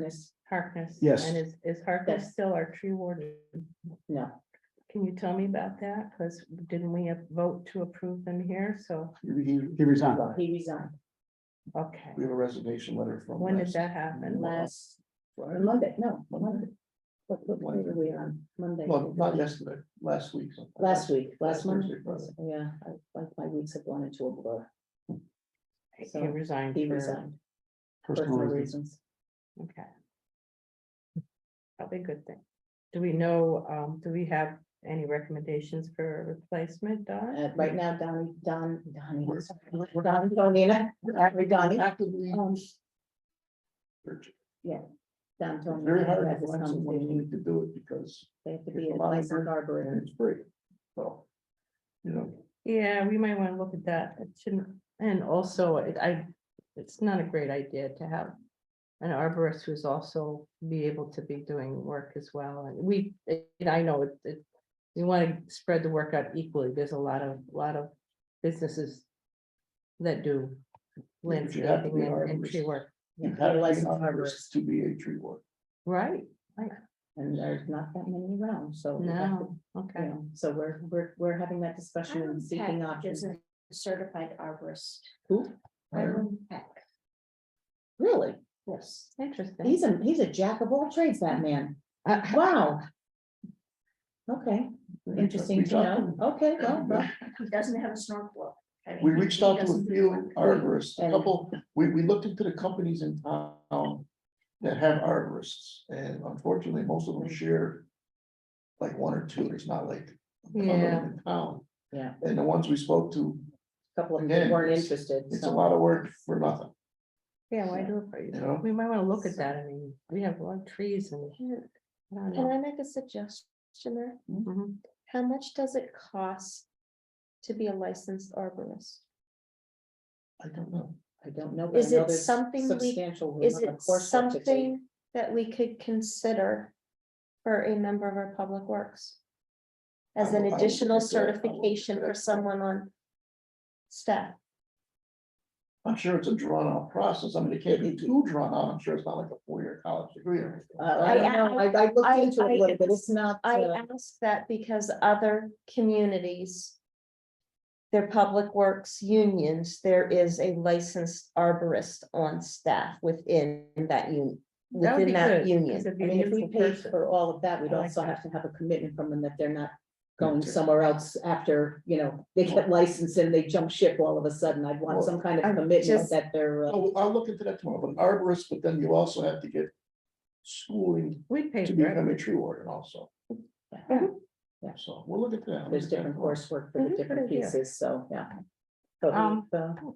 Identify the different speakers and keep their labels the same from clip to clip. Speaker 1: Miss Harkness.
Speaker 2: Yes.
Speaker 1: And is, is Harkness
Speaker 3: Yes.
Speaker 1: still our tree warden?
Speaker 3: No,
Speaker 1: Can you tell me about that? Because didn't we have vote to approve them here? So,
Speaker 2: He, he resigned.
Speaker 3: well, he resigned
Speaker 1: okay.
Speaker 2: We have a resignation letter from.
Speaker 1: When did
Speaker 2: last
Speaker 1: that happen?
Speaker 3: last uh,
Speaker 2: Friday.
Speaker 3: Monday, no, Monday. What, what, what were we on? Monday?
Speaker 2: Well, not yesterday, last week. sometime.
Speaker 3: Last week, last
Speaker 2: Last
Speaker 3: Monday,
Speaker 2: Thursday, Friday.
Speaker 3: yeah, I- like, my weeks have gone into a blur,
Speaker 1: He
Speaker 3: so
Speaker 1: resigned.
Speaker 3: he
Speaker 1: for-
Speaker 3: resigned,
Speaker 2: Personal
Speaker 3: personal
Speaker 2: reasons.
Speaker 3: reasons.
Speaker 1: Okay. Probably a good thing. Do we know, um, do we have any recommendations for a replacement, Don?
Speaker 3: Uh, right now, Donnie, Don, Donnie,
Speaker 2: We're- we're-
Speaker 3: Don, Donina, Don, Donnie,
Speaker 2: Actively.
Speaker 3: um,
Speaker 2: searching.
Speaker 3: Don,
Speaker 2: It's
Speaker 3: Tony.
Speaker 2: Very
Speaker 3: had
Speaker 2: hard to
Speaker 3: this
Speaker 2: find someone
Speaker 3: conversation.
Speaker 2: willing to do it because
Speaker 3: They have to
Speaker 2: There's
Speaker 3: be
Speaker 2: a
Speaker 3: a
Speaker 2: lot of
Speaker 3: licensed
Speaker 2: and
Speaker 3: arborist.
Speaker 2: it's free. So, you know,
Speaker 1: Yeah, we might want to look at that. It shouldn't, and also it, I, it's not a great idea to have. An arborist who's also be able to be doing work as well. And we, and I know it, it. You want to spread the work out equally. There's a lot of, lot of businesses. That do
Speaker 2: Yeah, but you have to
Speaker 1: landscaping
Speaker 2: be an
Speaker 1: and and tree
Speaker 2: arborist.
Speaker 1: work,
Speaker 3: Yeah,
Speaker 2: you
Speaker 3: they're
Speaker 2: have to be an
Speaker 3: licensed
Speaker 2: arborist
Speaker 3: arborist,
Speaker 2: to be a tree warden.
Speaker 1: right?
Speaker 3: And there's not that many around, so. we have to,
Speaker 1: No,
Speaker 3: You
Speaker 1: okay.
Speaker 3: know, so we're, we're, we're having that discussion and seeking options.
Speaker 4: a Certified arborist.
Speaker 3: Who?
Speaker 2: Hire-
Speaker 4: Hiram Peck.
Speaker 3: Really? Yes.
Speaker 1: Interesting.
Speaker 3: He's a, he's a jack of all trades, that man.
Speaker 1: Uh,
Speaker 3: Wow. Okay,
Speaker 2: we reached-
Speaker 3: interesting
Speaker 2: we
Speaker 3: to
Speaker 2: talked
Speaker 3: know. Okay, well, well,
Speaker 4: He doesn't have a snorkel. I mean,
Speaker 2: We reached
Speaker 4: he
Speaker 2: out to a
Speaker 4: doesn't do
Speaker 2: few
Speaker 4: it.
Speaker 2: arborists, a
Speaker 3: And-
Speaker 2: couple, we, we looked into the companies in town that have arborists, and unfortunately, most of them share like one or two, there's not like a ton of
Speaker 1: Yeah.
Speaker 2: them in town.
Speaker 3: Yeah.
Speaker 2: And the ones we spoke to,
Speaker 3: a couple of
Speaker 2: Again,
Speaker 3: them weren't
Speaker 2: it's-
Speaker 3: interested.
Speaker 2: it's a
Speaker 3: so-
Speaker 2: lot of work for nothing,
Speaker 1: Yeah, why do it for you?
Speaker 2: you know?
Speaker 1: We might want to look at that. I mean, we have a lot of trees and. I don't
Speaker 5: Can
Speaker 1: know.
Speaker 5: I make a suggestion there?
Speaker 2: Mm-hmm.
Speaker 1: Mhm.
Speaker 5: How much does it cost to be a licensed arborist?
Speaker 2: I don't know.
Speaker 3: I don't know. but I
Speaker 5: Is
Speaker 3: know
Speaker 5: it
Speaker 3: there's
Speaker 5: something we-
Speaker 3: Substantial.
Speaker 5: Is
Speaker 3: amount of
Speaker 5: it
Speaker 3: course work to take.
Speaker 5: something that we could consider for a member of our public works? As
Speaker 2: I will-
Speaker 5: an
Speaker 2: I will
Speaker 5: additional
Speaker 2: consider it. I will
Speaker 5: certification
Speaker 2: consider
Speaker 5: for
Speaker 2: it.
Speaker 5: someone on staff?
Speaker 2: I'm sure it's a drawn out process, I mean, it can't be too drawn out, I'm sure it's not like a four year college degree or anything.
Speaker 3: Uh, I don't know. I, I
Speaker 5: I-
Speaker 3: looked into it
Speaker 5: I-
Speaker 3: a little bit. It's not.
Speaker 5: I
Speaker 3: uh,
Speaker 5: ask that because other communities, their public works unions, there is a licensed arborist on staff within that union,
Speaker 1: That would be
Speaker 5: within that
Speaker 1: good, 'cause
Speaker 5: union.
Speaker 1: it'd
Speaker 3: I
Speaker 1: be a
Speaker 3: mean, if we
Speaker 1: neutral
Speaker 3: pay
Speaker 1: person.
Speaker 3: for all of that, we'd
Speaker 1: I like
Speaker 3: also
Speaker 1: that.
Speaker 3: have to have a commitment from them that they're not going
Speaker 2: Gotcha.
Speaker 3: somewhere else after, you know, they get licensed and they jump ship all of a sudden. I'd want
Speaker 2: Well,
Speaker 3: some kind
Speaker 5: I'm
Speaker 3: of commitment
Speaker 5: just-
Speaker 3: that they're.
Speaker 1: Oh,
Speaker 3: uh,
Speaker 2: I'll, I'll look into that tomorrow, but arborist, but then you also have to get schooling
Speaker 1: We'd pay
Speaker 2: to
Speaker 1: for it.
Speaker 2: become a tree warden also.
Speaker 3: Yeah.
Speaker 2: So we'll look at that.
Speaker 3: There's different coursework for
Speaker 1: Mhm,
Speaker 3: the different
Speaker 1: good idea.
Speaker 3: pieces, so, yeah. But
Speaker 1: Um,
Speaker 3: we've, uh,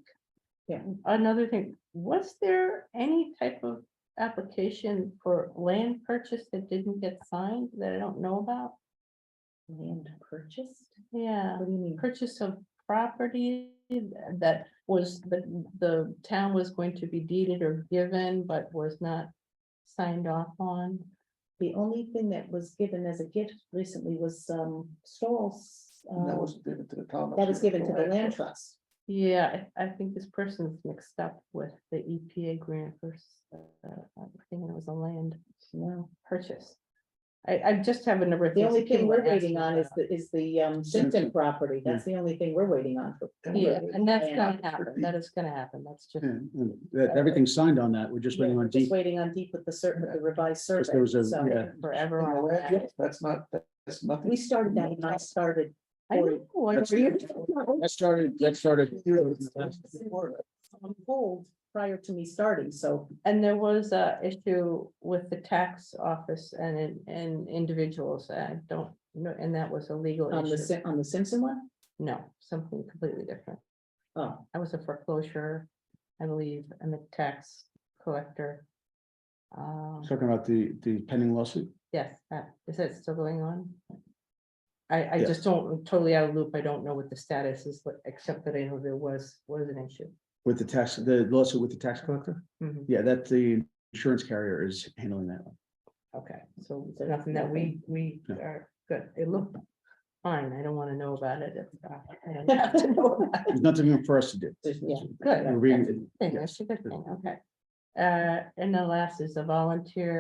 Speaker 1: Another thing, was there any type of application for land purchase that didn't get signed that I don't know about?
Speaker 3: Land purchased?
Speaker 1: Yeah,
Speaker 3: What do you mean?
Speaker 1: purchase of property that was, the, the town was going to be deeded or given, but was not signed off on.
Speaker 3: The only thing that was given as a gift recently was um stalls.
Speaker 2: And That
Speaker 3: uh,
Speaker 2: was given to the town.
Speaker 3: That was given to the land
Speaker 2: trust.
Speaker 3: trust.
Speaker 1: Yeah, I, I think this person's mixed up with the EPA grant versus, uh, I'm thinking it was a land
Speaker 3: No.
Speaker 1: purchase. I, I just have a number of
Speaker 3: The
Speaker 1: things.
Speaker 3: oning
Speaker 1: that people
Speaker 3: thing we're
Speaker 1: are asking
Speaker 3: waiting on is
Speaker 1: about.
Speaker 3: the is the um Simpson property. That's the only thing we're waiting on for
Speaker 1: Yeah, and that's gonna
Speaker 3: and-
Speaker 1: happen, that is gonna happen, that's just,
Speaker 3: Hmm.
Speaker 6: And and that, everything's signed on that, we're just waiting
Speaker 3: Yeah,
Speaker 6: on
Speaker 3: we're just
Speaker 6: deep,
Speaker 3: Waiting on deep with the certain, with the revised
Speaker 6: because
Speaker 3: survey.
Speaker 6: there was a,
Speaker 3: So
Speaker 6: yeah,
Speaker 1: forever on that.
Speaker 2: That's not, that's
Speaker 3: we
Speaker 2: nothing.
Speaker 3: started that when I started.
Speaker 1: I know, I
Speaker 6: That's-
Speaker 1: agree.
Speaker 6: that started, that started.
Speaker 3: On hold prior to me starting, so
Speaker 1: And there was a issue with the tax office and, in- and individuals, I don't know, and that was a legal
Speaker 3: on the
Speaker 1: issue.
Speaker 3: Sim- on the Simpson one,
Speaker 1: No, something completely different.
Speaker 3: oh,
Speaker 1: I was a foreclosure, I believe, and the tax collector. Um,
Speaker 6: Talking about the, the pending lawsuit,
Speaker 1: yes, that, is that still going on? I, I
Speaker 6: Yeah.
Speaker 1: just don't, I'm totally out of loop. I don't know what the status is, but except that I know there was, was an issue.
Speaker 6: with the tax, the lawsuit with the tax collector,
Speaker 1: Mhm.
Speaker 6: yeah, that the insurance carrier is handling that one.
Speaker 1: Okay, so
Speaker 3: So
Speaker 1: nothing that we, we
Speaker 6: No.
Speaker 1: are, good, it looked fine. I don't want to know about it. if, uh, I don't have to know about it.
Speaker 6: There's nothing for us to do.
Speaker 3: there's, yeah.
Speaker 1: Good.
Speaker 6: We're reading it.
Speaker 1: Thing,
Speaker 6: yeah.
Speaker 1: that's a good thing, okay. Uh, and the last is a volunteer